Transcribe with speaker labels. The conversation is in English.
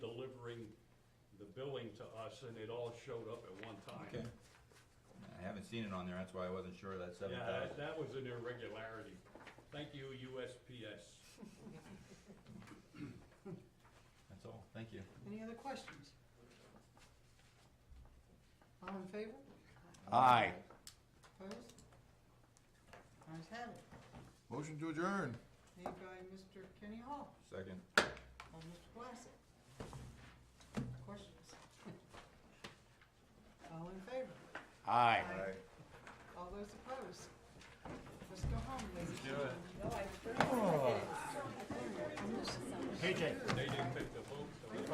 Speaker 1: the billing to us, and it all showed up at one
Speaker 2: Okay.
Speaker 1: time.
Speaker 2: I haven't seen it on there, that's why I wasn't sure that seven
Speaker 1: Yeah, that-
Speaker 2: thousand.
Speaker 1: that was an irregularity. Thank you, USPS.
Speaker 2: That's all, thank you.
Speaker 3: Any other questions? All in favor?
Speaker 4: Aye.
Speaker 3: Opposed? Ayes have it.
Speaker 4: Motion to adjourn.
Speaker 3: Made by Mr. Kenny Hall,
Speaker 2: Second.
Speaker 3: by Mr. Glassick. Questions? All in favor?
Speaker 4: Aye.
Speaker 3: Aye. All those opposed? Let's go home, ladies.
Speaker 1: Do it.
Speaker 3: I'm just-
Speaker 1: They didn't pick the